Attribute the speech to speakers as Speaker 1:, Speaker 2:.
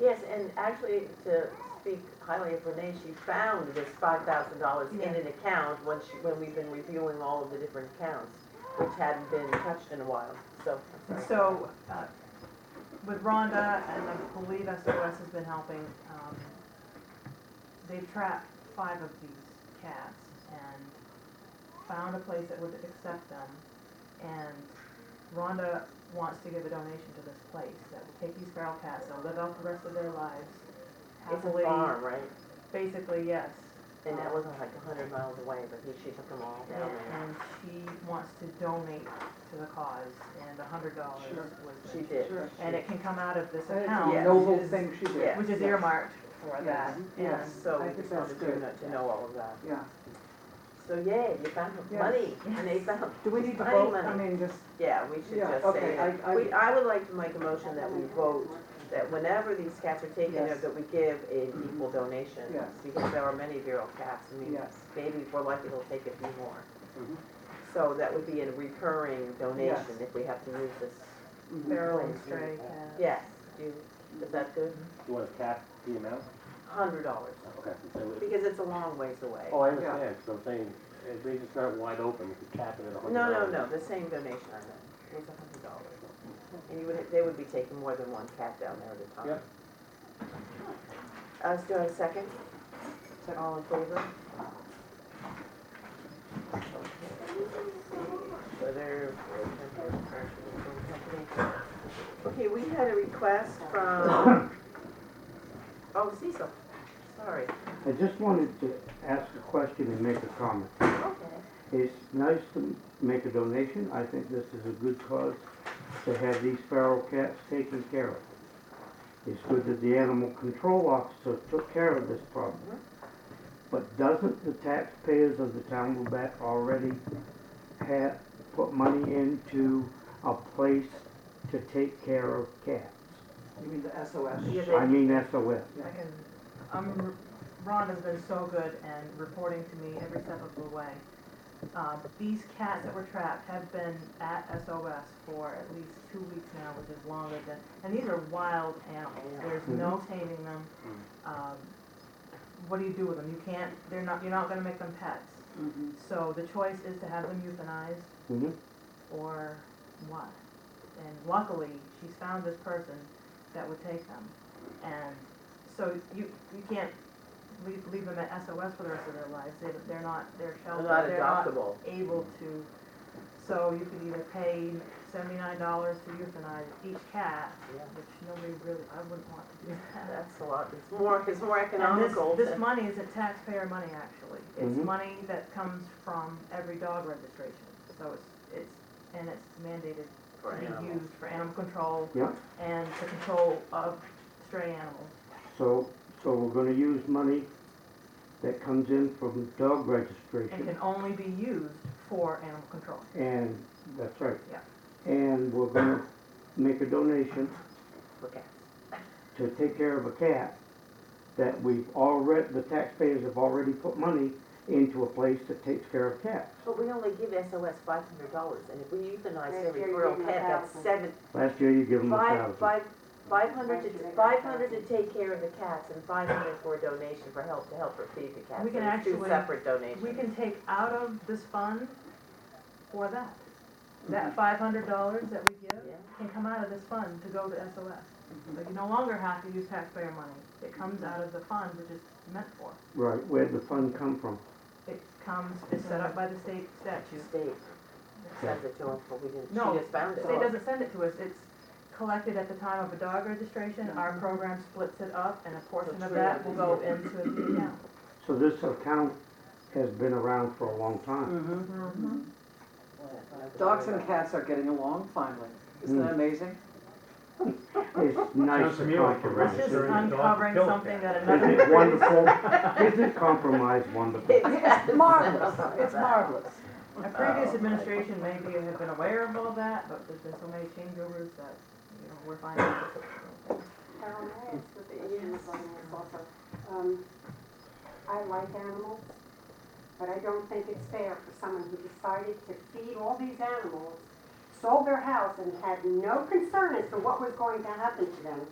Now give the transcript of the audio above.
Speaker 1: Yes, and actually, to speak highly of Renee, she found this five thousand dollars in
Speaker 2: Yeah.
Speaker 1: an account when she, when we've been reviewing all of the different accounts, which hadn't been touched in a while, so. I'm sorry.
Speaker 2: So, uh, with Rhonda and I believe SOS has been helping, um, they've trapped five of these cats and found a place that would accept them. And Rhonda wants to give a donation to this place that will take these feral cats, they'll live out the rest of their lives
Speaker 1: It's
Speaker 2: happily.
Speaker 1: a farm, right?
Speaker 2: Basically, yes.
Speaker 1: And that wasn't like a hundred miles away, but he, she took them all down there.
Speaker 2: And she wants to donate to the cause and a hundred dollars
Speaker 3: Sure.
Speaker 2: was the
Speaker 1: She did.
Speaker 3: Sure.
Speaker 2: and it can come out of this
Speaker 3: That's
Speaker 2: account.
Speaker 3: a
Speaker 1: yes.
Speaker 3: Uh, noble
Speaker 2: which is-
Speaker 3: thing she
Speaker 1: yeah.
Speaker 3: did.
Speaker 2: Which is
Speaker 3: Yes.
Speaker 2: earmarked for
Speaker 3: Yes,
Speaker 2: that.
Speaker 3: yes.
Speaker 2: And
Speaker 1: So
Speaker 3: I
Speaker 1: we
Speaker 3: think
Speaker 1: just wanted
Speaker 3: that's
Speaker 1: you
Speaker 3: good.
Speaker 1: to to know all of that.
Speaker 3: Yeah.
Speaker 1: So yay, you found
Speaker 3: Yes.
Speaker 1: money, and they found,
Speaker 3: Do we need to
Speaker 1: Money,
Speaker 3: vote? I
Speaker 1: money.
Speaker 3: mean, just,
Speaker 1: yeah, we should
Speaker 3: Yeah,
Speaker 1: just say
Speaker 3: okay,
Speaker 1: that.
Speaker 3: I- I-
Speaker 1: We, I would like to make a motion that we vote that whenever these cats are taken,
Speaker 3: Yes. Mm-hmm.
Speaker 1: that we give an equal donation.
Speaker 3: Yes.
Speaker 1: Because there are many feral cats, I mean,
Speaker 3: yes. Mm-hmm.
Speaker 1: maybe if we're lucky, they'll take a few more.
Speaker 4: Mhm.
Speaker 1: So that would be a recurring donation
Speaker 3: Yes.
Speaker 1: if we have to use this.
Speaker 3: Mhm.
Speaker 2: feral and
Speaker 1: Mhm.
Speaker 2: stray cat.
Speaker 1: Yes, do, is that good?
Speaker 4: You want to cap the amount? Oh,
Speaker 1: Hundred dollars,
Speaker 4: Okay. so it-
Speaker 1: because it's a long ways away.
Speaker 4: Oh, I understand, so I'm saying, at least it's not wide open, you could cap it at a hundred
Speaker 1: No, no,
Speaker 4: dollars.
Speaker 1: no, the same donation I meant, it was a hundred dollars. And you would, they would be taking more than one cat down there at a time.
Speaker 4: Yep.
Speaker 1: Uh, do I have a second? Is that all in favor? Whether. Okay, we had a request from, oh, Cecil, sorry.
Speaker 5: I just wanted to ask a question and make a comment.
Speaker 1: Okay.
Speaker 5: It's nice to make a donation. I think this is a good cause to have these feral cats taken care of. It's good that the animal control officer took care of this problem. But doesn't the taxpayers of the town of Lubec already have, put money into a place to take care of cats?
Speaker 3: You mean the SOS?
Speaker 2: Yeah,
Speaker 5: I
Speaker 2: they-
Speaker 5: mean SOS.
Speaker 2: I can, um, Rhonda's been so good and reporting to me every step of the way. Uh, these cats that were trapped have been at SOS for at least two weeks now, which is longer than, and these are wild animals, there's
Speaker 5: Mm-hmm.
Speaker 2: no taming them.
Speaker 5: Mm.
Speaker 2: Um, what do you do with them? You can't, they're not, you're not gonna make them pets.
Speaker 3: Mhm.
Speaker 2: So the choice is to have them euthanized
Speaker 1: Mm-hmm.
Speaker 5: Mhm.
Speaker 2: or what. And luckily, she's found this person that would take them. And so you, you can't leave, leave them at SOS for the rest of their lives. They, they're not, they're
Speaker 1: They're
Speaker 2: sheltered,
Speaker 1: not
Speaker 2: they're not
Speaker 1: adoptable.
Speaker 2: able to. So you could either pay seventy-nine dollars to euthanize each cat,
Speaker 1: Yeah.
Speaker 2: which nobody really, I wouldn't want to do that.
Speaker 1: That's a lot, it's more, it's more
Speaker 2: And this,
Speaker 1: economical
Speaker 2: this
Speaker 1: than-
Speaker 2: money isn't taxpayer money, actually. It's
Speaker 5: Mhm.
Speaker 2: money that comes from every dog registration. So it's, it's, and it's mandated
Speaker 1: for
Speaker 2: to be
Speaker 1: animals.
Speaker 2: used for animal control
Speaker 5: Yeah.
Speaker 2: and the control of stray animals.
Speaker 5: So, so we're gonna use money that comes in from dog
Speaker 2: It
Speaker 5: registration,
Speaker 2: can only be used for animal control.
Speaker 5: and, that's right.
Speaker 2: Yeah.
Speaker 5: And we're gonna make a donation
Speaker 1: for cats.
Speaker 5: to take care of a cat that we've already, the taxpayers have already put money into a place that takes care of cats.
Speaker 1: But we only give SOS five hundred dollars, and if we euthanize
Speaker 6: Right,
Speaker 1: every
Speaker 6: you're
Speaker 1: feral
Speaker 6: giving a
Speaker 1: cat, that's
Speaker 6: thousand.
Speaker 1: seven,
Speaker 5: Last year you give them a
Speaker 1: five,
Speaker 5: thousand.
Speaker 1: five, five hundred
Speaker 6: Why
Speaker 1: to,
Speaker 6: should I
Speaker 1: five hundred
Speaker 6: give
Speaker 1: to take care of the cats, and five hundred for a donation for help, to help her feed the cats.
Speaker 2: We can
Speaker 1: So it's Two
Speaker 2: actually-
Speaker 1: separate
Speaker 2: We
Speaker 1: donations.
Speaker 2: can take out of this fund for that. That five hundred dollars that we give
Speaker 1: Yeah.
Speaker 2: can come out of this fund to go to SOS. But you no longer have to use taxpayer money. It comes out of the fund, which is meant for.
Speaker 5: Right, where'd the fund come from?
Speaker 2: It comes, it's set up by the state statute.
Speaker 1: State sends it to us, but we didn't,
Speaker 2: No,
Speaker 1: she just found
Speaker 2: The
Speaker 1: it.
Speaker 2: state doesn't send it to us, it's collected at the time of a dog registration, our program splits it up, and a portion of that will go into the account.
Speaker 5: So this account has been around for a long
Speaker 2: Mm.
Speaker 5: time.
Speaker 3: Mhm.
Speaker 2: Mm-hmm.
Speaker 1: Nobody
Speaker 3: Dogs
Speaker 1: knows.
Speaker 3: and cats are getting along finally. Isn't
Speaker 2: Mm.
Speaker 3: that amazing?
Speaker 5: It's nice
Speaker 7: Sounds to
Speaker 5: to
Speaker 7: me like you're
Speaker 5: compromise.
Speaker 2: This is
Speaker 7: Sure, the dog
Speaker 2: uncovering
Speaker 7: killed
Speaker 2: something
Speaker 7: that.
Speaker 2: that
Speaker 5: Isn't
Speaker 2: another,
Speaker 5: it wonderful? Isn't compromise wonderful?
Speaker 3: It's marvelous, it's marvelous.
Speaker 2: a previous administration maybe have been aware of all that, but there's been so many changeovers that, you know, we're finding.
Speaker 6: Carol, may I ask what the issue is on this also? Um, I like animals, but I don't think it's fair for someone who decided to feed all these animals, sold their house and had no concern as to what was going to happen to them,